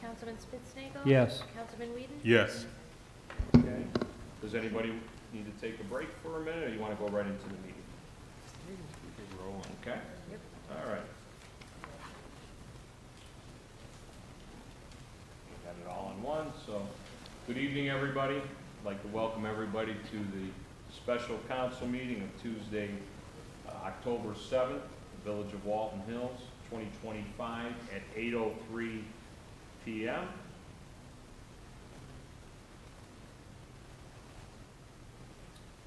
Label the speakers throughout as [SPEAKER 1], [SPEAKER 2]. [SPEAKER 1] Councilman Spitznagel.
[SPEAKER 2] Yes.
[SPEAKER 1] Councilman Whedon.
[SPEAKER 3] Yes.
[SPEAKER 4] Okay. Does anybody need to take a break for a minute, or you want to go right into the meeting? Keep rolling, okay?
[SPEAKER 1] Yep.
[SPEAKER 4] All right. Got it all in one, so, good evening, everybody. I'd like to welcome everybody to the special council meeting of Tuesday, uh, October 7th, the Village of Walton Hills, 2025, at 8:03 PM.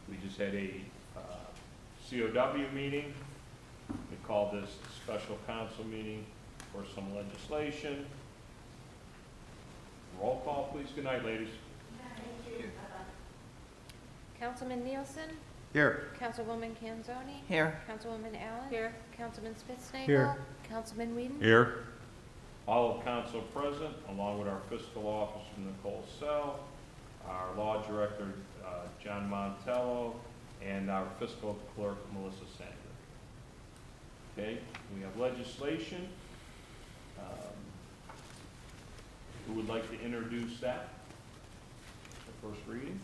[SPEAKER 4] We just had a uh, COW meeting. We called this special council meeting for some legislation. Roll call, please. Good night, ladies.
[SPEAKER 1] Councilman Nielsen.
[SPEAKER 3] Here.
[SPEAKER 1] Councilwoman Kanzoni.
[SPEAKER 5] Here.
[SPEAKER 1] Councilwoman Allen. Here. Councilman Spitznagel.
[SPEAKER 2] Here.
[SPEAKER 1] Councilman Whedon.
[SPEAKER 3] Here.
[SPEAKER 4] All of council present, along with our fiscal officer, Nicole Sell, our law director, uh, John Montello, and our fiscal clerk, Melissa Sanger. Okay, we have legislation. Um, Who would like to introduce that? The first reading?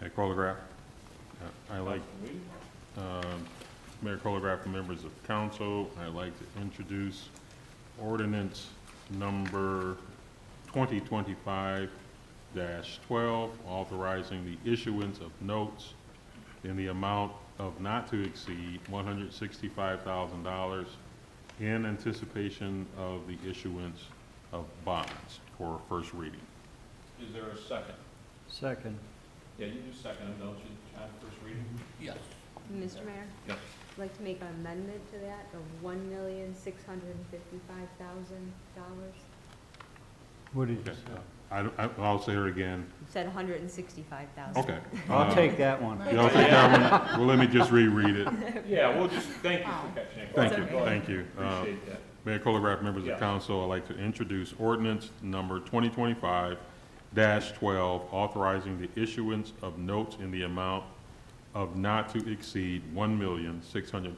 [SPEAKER 3] Mayor Colograph. Uh, I like,
[SPEAKER 4] Councilman Whedon?
[SPEAKER 3] um, Mayor Colograph, and members of council, I'd like to introduce ordinance number 2025-12, authorizing the issuance of notes in the amount of not to exceed $165,000 in anticipation of the issuance of bonds for first reading.
[SPEAKER 4] Is there a second?
[SPEAKER 2] Second.
[SPEAKER 4] Yeah, you do second, it, don't you, John, first reading? Yes.
[SPEAKER 6] Mr. Mayor?
[SPEAKER 4] Yes.
[SPEAKER 6] I'd like to make an amendment to that of one million, six hundred and fifty-five thousand dollars.
[SPEAKER 2] What did you
[SPEAKER 3] Okay.
[SPEAKER 2] say?
[SPEAKER 3] I, I- I'll say it again.
[SPEAKER 6] It said hundred and sixty-five thousand.
[SPEAKER 3] Okay.
[SPEAKER 2] I'll
[SPEAKER 3] Uh,
[SPEAKER 2] take that one.
[SPEAKER 3] You don't think that one? Well, let me just reread it.
[SPEAKER 4] Yeah, well, just, thank you for catching it.
[SPEAKER 3] Thank you,
[SPEAKER 4] Go ahead.
[SPEAKER 3] thank you. Uh,
[SPEAKER 4] Appreciate that.
[SPEAKER 3] Mayor Colograph, members
[SPEAKER 4] Yeah.
[SPEAKER 3] of council, I'd like to introduce ordinance number 2025-12, authorizing the issuance of notes in the amount of not to exceed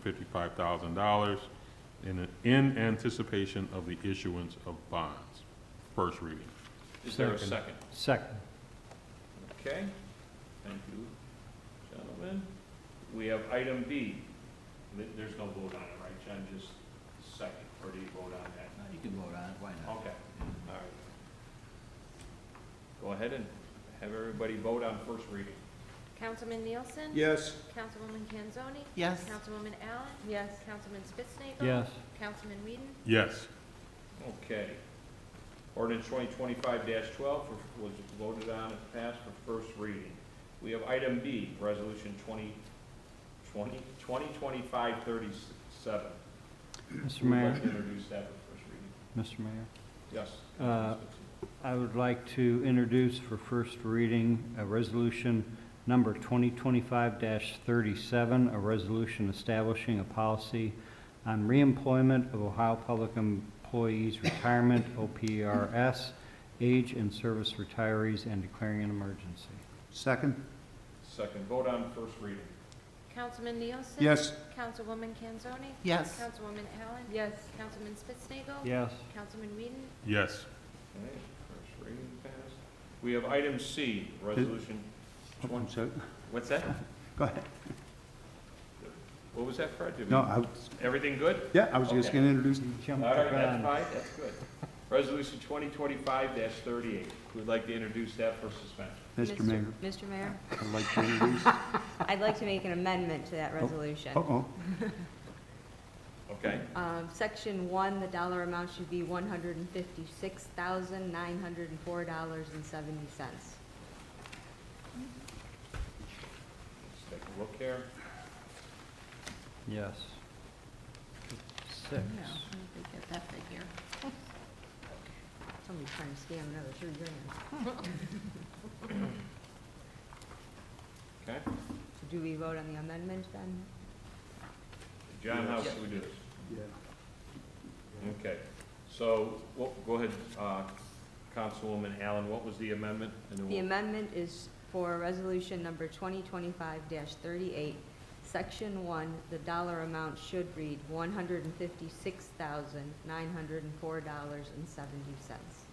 [SPEAKER 3] $1,655,000 in in anticipation of the issuance of bonds. First reading.
[SPEAKER 4] Is there a
[SPEAKER 2] Second.
[SPEAKER 4] second?
[SPEAKER 2] Second.
[SPEAKER 4] Okay, thank you, gentlemen. We have item B. Th- There's no vote on it, right, John, just second, or do you vote on that?
[SPEAKER 7] No, you can vote on it, why not?
[SPEAKER 4] Okay, all right. Go ahead and have everybody vote on first reading.
[SPEAKER 1] Councilman Nielsen.
[SPEAKER 4] Yes.
[SPEAKER 1] Councilwoman Kanzoni.
[SPEAKER 5] Yes.
[SPEAKER 1] Councilwoman Allen.
[SPEAKER 6] Yes,
[SPEAKER 1] Councilman Spitznagel.
[SPEAKER 2] Yes.
[SPEAKER 1] Councilman Whedon.
[SPEAKER 3] Yes.
[SPEAKER 4] Okay. Ordinance twenty twenty-five twelve was voted on and passed for first reading. We have item B, resolution 20 20 2025 37.
[SPEAKER 2] Mr.
[SPEAKER 4] Who would
[SPEAKER 2] Mayor,
[SPEAKER 4] like to introduce that for first reading?
[SPEAKER 2] Mr. Mayor,
[SPEAKER 4] Yes.
[SPEAKER 2] Uh, I would like to introduce for first reading a resolution number 2025-37, a resolution establishing a policy on reemployment of Ohio Public Employees Retirement, OPRS, age and service retirees, and declaring an emergency.
[SPEAKER 7] Second?
[SPEAKER 4] Second, vote on first reading.
[SPEAKER 1] Councilman Nielsen.
[SPEAKER 7] Yes.
[SPEAKER 1] Councilwoman Kanzoni.
[SPEAKER 5] Yes.
[SPEAKER 1] Councilwoman Allen.
[SPEAKER 6] yes,
[SPEAKER 1] Councilman Spitznagel.
[SPEAKER 2] Yes.
[SPEAKER 1] Councilman Whedon.
[SPEAKER 3] Yes.
[SPEAKER 4] Okay, first reading passed. We have item C, resolution 20,
[SPEAKER 7] So,
[SPEAKER 4] what's that?
[SPEAKER 7] Oh, go ahead.
[SPEAKER 4] What was that, Fred? Did we-
[SPEAKER 7] No, I, was-
[SPEAKER 4] Everything good?
[SPEAKER 7] yeah, I was just
[SPEAKER 4] Okay.
[SPEAKER 7] gonna introduce,
[SPEAKER 2] Jump
[SPEAKER 4] All right,
[SPEAKER 2] around.
[SPEAKER 4] that's fine, that's good. Resolution twenty twenty-five thirty-eight, who'd like to introduce that for suspension?
[SPEAKER 7] Mr.
[SPEAKER 6] Mr.
[SPEAKER 7] Mayor,
[SPEAKER 6] Mr. Mayor,
[SPEAKER 7] I'd like to introduce,
[SPEAKER 6] I'd like to make an amendment to that resolution.
[SPEAKER 2] Oh.
[SPEAKER 7] uh-oh,
[SPEAKER 4] Okay,
[SPEAKER 6] Um, section one, the dollar amount should be one hundred and fifty-six thousand, nine hundred and four dollars and seventy cents.
[SPEAKER 4] let's take a look here.
[SPEAKER 2] Yes. Six.
[SPEAKER 6] get that figure. Somebody's trying to scam another three grand.
[SPEAKER 4] Okay,
[SPEAKER 6] Do we vote on the amendment then?
[SPEAKER 4] John, how should we do this? Okay, so, well, go ahead, uh, Councilwoman Allen, what was the amendment? And then
[SPEAKER 6] The
[SPEAKER 4] we'll-
[SPEAKER 6] amendment is for resolution number twenty twenty-five thirty-eight. Section one, the dollar amount should read one hundred and fifty-six thousand, nine hundred and four dollars and seventy cents.